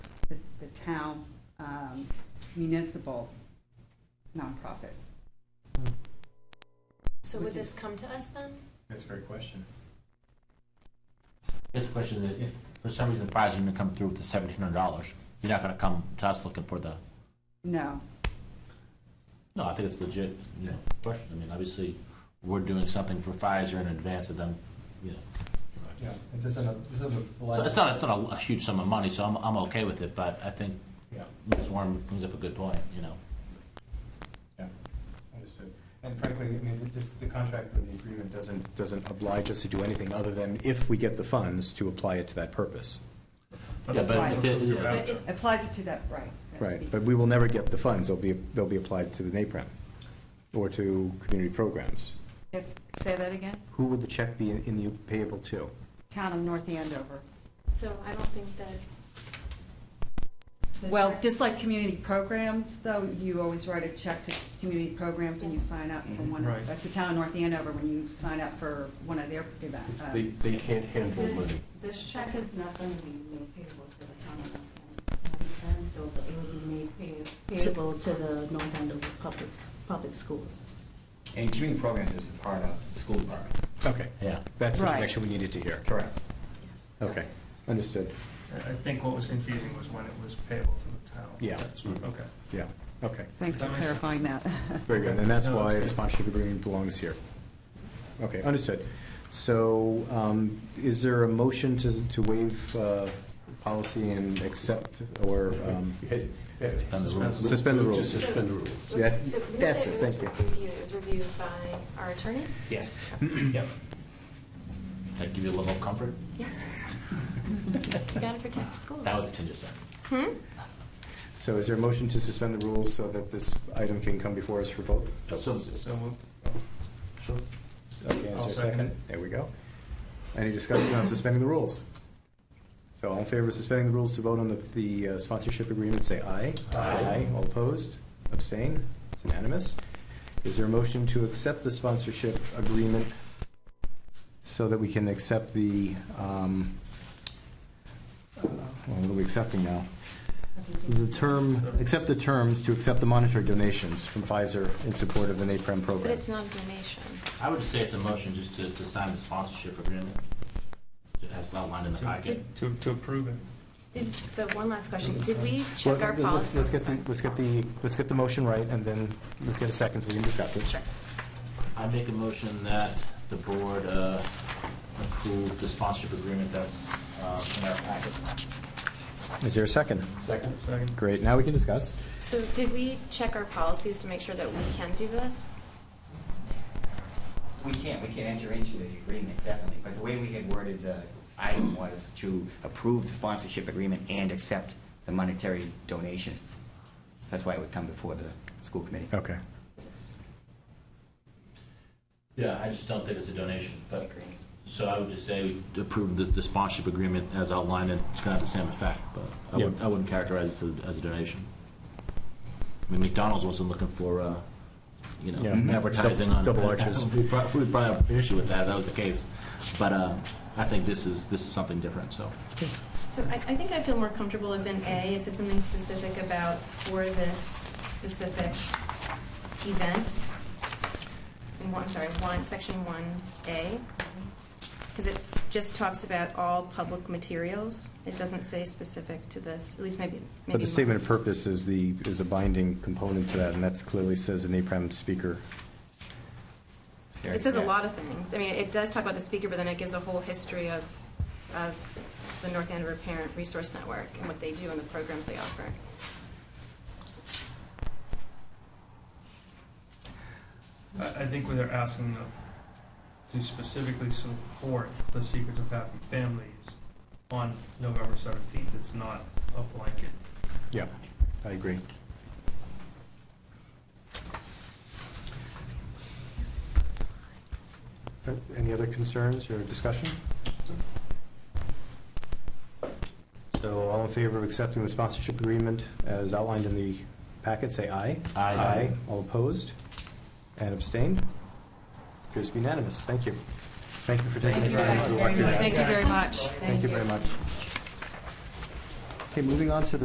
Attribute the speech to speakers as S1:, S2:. S1: town um, municipal nonprofit.
S2: So would this come to us then?
S3: That's a great question.
S4: This question is, if for some reason Pfizer didn't come through with the seventeen hundred dollars, you're not gonna come to us looking for the,
S1: No,
S4: no, I think it's legit, you know, question. I mean, obviously, we're doing something for Pfizer in advance of them, you know.
S3: Yeah, it doesn't, this is a
S4: So it's not, it's not a- a huge sum of money, so I'm, I'm okay with it, but I think
S3: Yeah,
S4: Ms. Warren brings up a good point, you know.
S3: yeah, understood. And frankly, I mean, this, the contract or the agreement doesn't, doesn't oblige us to do anything other than if we get the funds to apply it to that purpose.
S4: Yeah, but if it- yeah.
S2: But if-
S1: applies it to that, right. that's
S3: Right,
S1: the-
S3: but we will never get the funds, they'll be, they'll be applied to the NAPRAM or to community programs.
S1: If- Say that again?
S3: Who would the check be in the payable to?
S1: Town of North Andover.
S2: So I don't think that. that's
S1: Well,
S2: right.
S1: just like community programs, though, you always write a check to community programs when you sign up for one,
S5: Right.
S1: that's the town of North Andover, when you sign up for one of their uh, events.
S5: They, they can't handle
S6: This,
S5: money.
S6: this check is not going to be made payable to the town of North Andover. It will be made pay- payable to the North Andover Public, Public Schools.
S7: And community programs is a part of the school department.
S3: Okay,
S4: Yeah,
S3: that's the
S1: Right.
S3: connection we needed to hear.
S7: Correct.
S3: Okay, understood,
S5: I think what was confusing was when it was payable to the town.
S3: Yeah.
S5: That's, okay.
S3: yeah, okay.
S1: Thanks for
S5: That makes sense.
S1: clarifying that.
S3: Very good, and that's
S5: No,
S3: why
S5: that's
S3: the
S5: good.
S3: sponsorship agreement belongs here. Okay, understood. So um, is there a motion to to waive uh, policy and accept or, um,
S5: Yes, yes.
S4: Suspend the rules.
S3: Suspend the
S5: Move to
S3: rules.
S5: Suspend the rules.
S3: Yeah,
S2: So you
S3: that's
S2: said
S3: it,
S2: it was
S3: thank
S2: reviewed, it was reviewed by our attorney?
S7: Yes. Yep.
S4: that give you a level of comfort?
S2: Yes. You gotta protect the schools.
S4: That was a tinge of sense.
S2: Hmm?
S3: so is there a motion to suspend the rules so that this item can come before us for vote?
S4: So-
S5: So moved.
S3: Okay, is
S5: I'll
S3: there a
S5: second
S3: second?
S5: it.
S3: There we go. Any discussion on suspending the rules? So all in favor of suspending the rules to vote on the- the uh, sponsorship agreement, say aye.
S4: Aye.
S3: All opposed, abstain, it's unanimous. Is there a motion to accept the sponsorship agreement so that we can accept the, um, uh, well, what are we accepting now? The term, accept the terms to accept the monetary donations from Pfizer in support of the NAPRAM program.
S2: But it's not a donation.
S4: I would just say it's a motion just to, to sign the sponsorship agreement. That's outlined in the packet.
S5: To, to approve it.
S2: Did, so one last question. Did we check
S3: Well,
S2: our
S3: let's-
S2: policy?
S3: Let's get, the- let's get the, let's get the motion right, and then let's get a second, so we can discuss it.
S4: I make a motion that the board uh, approve the sponsorship agreement that's uh, in our packet.
S3: Is there a second?
S5: Second. Second.
S3: Great, now we can discuss.
S2: So did we check our policies to make sure that we can do this?
S7: We can't, we can enter into the agreement, definitely, but the way we had worded the item was to approve the sponsorship agreement and accept the monetary donation. That's why it would come before the school committee.
S3: Okay.
S2: It's-
S4: Yeah, I just don't think it's a donation, but,
S2: Agreed.
S4: so I would just say we approve the, the sponsorship agreement as outlined, and it's gonna have the same effect, but I wouldn't,
S3: Yeah.
S4: I wouldn't characterize it as, as a donation. I mean, McDonald's wasn't looking for, uh, you
S3: Yeah. Mm-hmm.
S4: know, advertising on.
S3: Double arches.
S4: We brought, we brought up an issue with that, if that was the case, but, uh, I think this is, this is something different, so.
S2: So I, I think I feel more comfortable if in A, it said something specific about for this specific event. In one, I'm sorry, one, section one A. Because it just talks about all public materials. It doesn't say specific to this, at least maybe, maybe.
S3: But the statement of purpose is the, is the binding component to that, and that clearly says an APRAM speaker.
S2: It says a lot of things. I mean, it does talk about the speaker, but then it gives a whole history of, of the North Andover Parent Resource Network and what they do and the programs they offer.
S5: I, I think what they're asking of- to specifically support the Secrets of Happy Families on November seventeenth. It's not a blanket.
S3: Yeah, I agree. Uh, Any other concerns or discussion? So all in favor of accepting the sponsorship agreement as outlined in the packet, say aye.
S4: Aye.
S3: All opposed and abstained? Appears to be unanimous. Thank you. Thank you for taking the time to walk through that.
S2: Thank you very much.
S3: Thank you very much. Okay, moving on to the